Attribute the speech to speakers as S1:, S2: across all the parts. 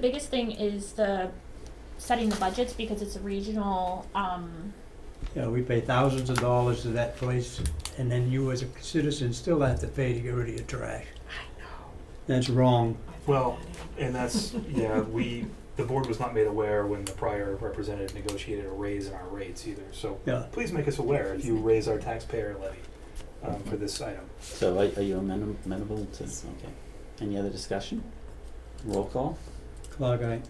S1: biggest thing is the setting the budgets because it's a regional, um,
S2: You know, we pay thousands of dollars to that place, and then you as a citizen still have to pay to get rid of your trash. That's wrong.
S3: Well, and that's, yeah, we, the board was not made aware when the prior representative negotiated a raise in our rates either, so
S2: Yeah,
S3: please make us aware if you raise our taxpayer levy, um, for this item.
S4: So are, are you amenam- amenable to, okay. Any other discussion? Roll call?
S2: clog eye.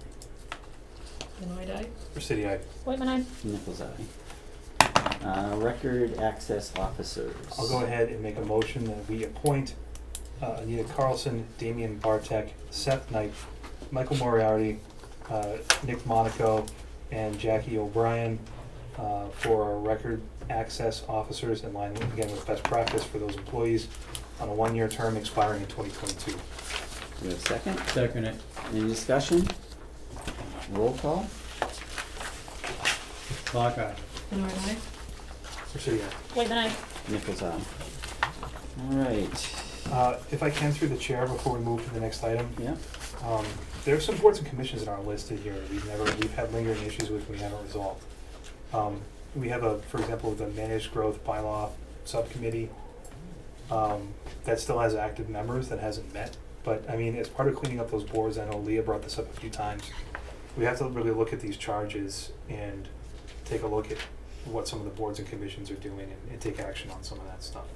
S5: Benoit Eye?
S3: For city, I,
S1: Whitman, I,
S4: Nichols eye. Uh, record access officers.
S3: I'll go ahead and make a motion that we appoint uh, Anita Carlson, Damian Bartek, Seth Knight, Michael Moriarty, uh, Nick Monaco, and Jackie O'Brien uh, for our record access officers in line with- again with best practice for those employees on a one-year term expiring in 2022.
S4: We have a second?
S2: Second it.
S4: Any discussion? Roll call?
S2: Clog eye.
S5: Benoit Eye?
S3: So, yeah.
S1: Whitman, I,
S4: Nichols eye. Alright,
S3: Uh, if I can, through the chair, before we move to the next item,
S4: yeah,
S3: Um, there are some boards and commissions in our list here that we've never, we've had lingering issues with, we haven't resolved. Um, we have a, for example, the managed growth bylaw subcommittee, um, that still has active members that hasn't met. But, I mean, as part of cleaning up those boards, I know Leah brought this up a few times, we have to really look at these charges and take a look at what some of the boards and commissions are doing and, and take action on some of that stuff.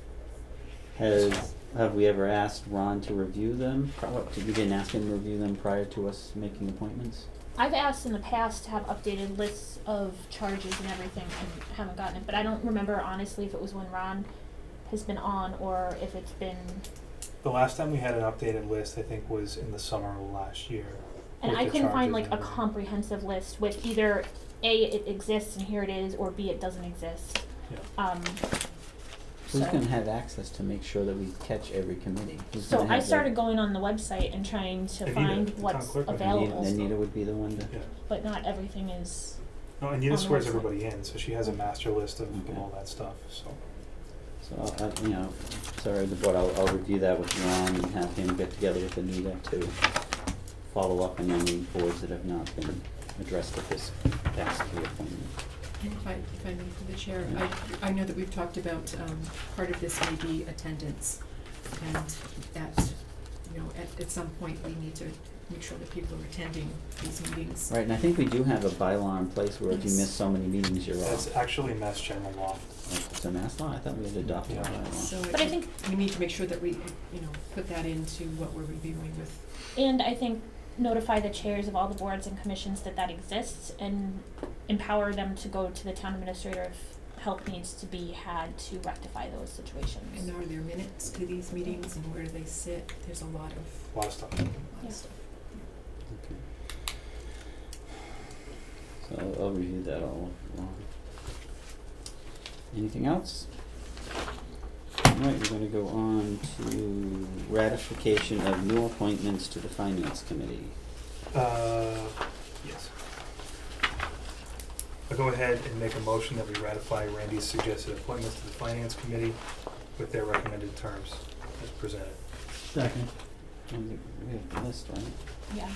S4: has, have we ever asked Ron to review them? Probably, we didn't ask him to review them prior to us making appointments?
S1: I've asked in the past to have updated lists of charges and everything and haven't gotten it, but I don't remember honestly if it was when Ron has been on or if it's been,
S3: The last time we had an updated list, I think, was in the summer of last year.
S1: and
S3: with
S1: I
S3: the
S1: couldn't find
S3: charges
S1: like
S3: and
S1: a
S3: everything.
S1: comprehensive list with either A, it exists and here it is, or B, it doesn't exist.
S3: Yeah.
S1: Um, so.
S4: Who's gonna have access to make sure that we catch every committee? Who's
S1: So
S4: gonna
S1: I
S4: have the-
S1: started going on the website and trying to
S3: Anita,
S1: find
S3: the town
S1: what's
S3: clerk, I think.
S4: Anita,
S1: available,
S4: Anita would be the one to.
S3: Yeah.
S1: but not everything is,
S3: No, Anita
S1: on the
S3: swears
S1: website.
S3: everybody in, so she has a master list of, of
S4: Okay.
S3: all that stuff, so.
S4: So, I'll- I, you know, sorry, the board, I'll, I'll review that with Ron and have him get together with Anita to follow up on any boards that have not been addressed at this past reappointment.
S5: And if I, if I may, through the chair, I, I know that we've talked about, um, part of this may be attendance. And that, you know, at, at some point, we need to make sure that people are attending these meetings.
S4: Right, and I think we do have a bylaw in place where if you miss
S5: Yes.
S4: so many meetings, you're off.
S3: That's actually mass general law.
S4: It's a mass law, I thought we had adopted a
S3: Yeah.
S4: bylaw.
S5: So
S1: but I think,
S5: we need to make sure that we, you know, put that into what we're reviewing with,
S1: and I think notify the chairs of all the boards and commissions that that exists and empower them to go to the town administrator if help needs to be had to rectify those
S5: and
S1: situations.
S5: are there minutes to these meetings and where do they sit? There's a lot of,
S3: A lot of stuff.
S5: a lot
S1: Yeah.
S5: of stuff.
S4: Okay. So I'll- I'll review that all along. Anything else? Alright, we're gonna go on to ratification of new appointments to the finance committee.
S3: Uh, yes. I'll go ahead and make a motion that we ratify Randy's suggested appointments to the finance committee with their recommended terms as presented.
S2: Second.
S4: And we we have the list, right?
S1: Yeah,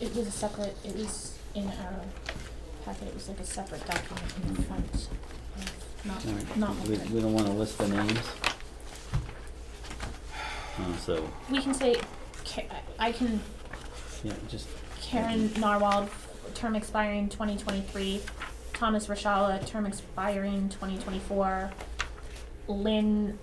S1: it was a separate, it was in our packet, it was like a separate document in the front of,
S4: Alright,
S1: not, not.
S4: We,
S1: like-
S4: we don't wanna list the names. Uh, so,
S1: We can say, Ca- I I can
S4: yeah, just,
S1: Karen Narwhal, term expiring twenty twenty-three. Thomas Rashala, term expiring twenty twenty-four. Lynn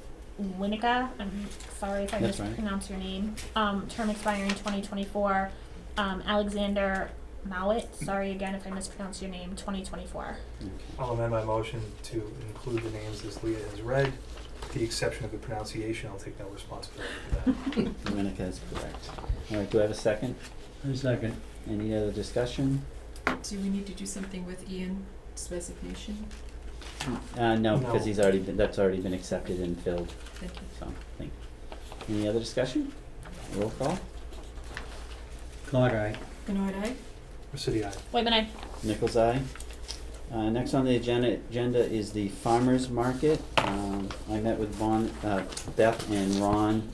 S1: Winica, I'm sorry if I
S4: That's right.
S1: mispronounce your name, um, term expiring twenty twenty-four. Um, Alexander Mowat, sorry again if I mispronounce your name, twenty twenty-four.
S4: okay.
S3: I'll amend my motion to include the names as Leah has read. With The exception of the pronunciation, I'll take no responsibility for that.
S4: Domenica is correct. Alright, do I have a second?
S2: A second.
S4: Any other discussion?
S5: Do we need to do something with Ian's resignation?
S4: Uh, no, because
S3: No.
S4: he's already been, that's already been accepted and filled,
S5: Thank you.
S4: so, thank. Any other discussion? Roll call?
S2: Clog eye.
S5: Benoit Eye?
S3: City, I.
S1: Wait a minute,
S4: Nichols eye. Uh, next on the agenda, agenda is the farmer's market. Um, I met with Bon, uh, Beth and Ron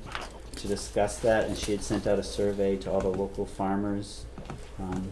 S4: to discuss that, and she had sent out a survey to all the local farmers Um,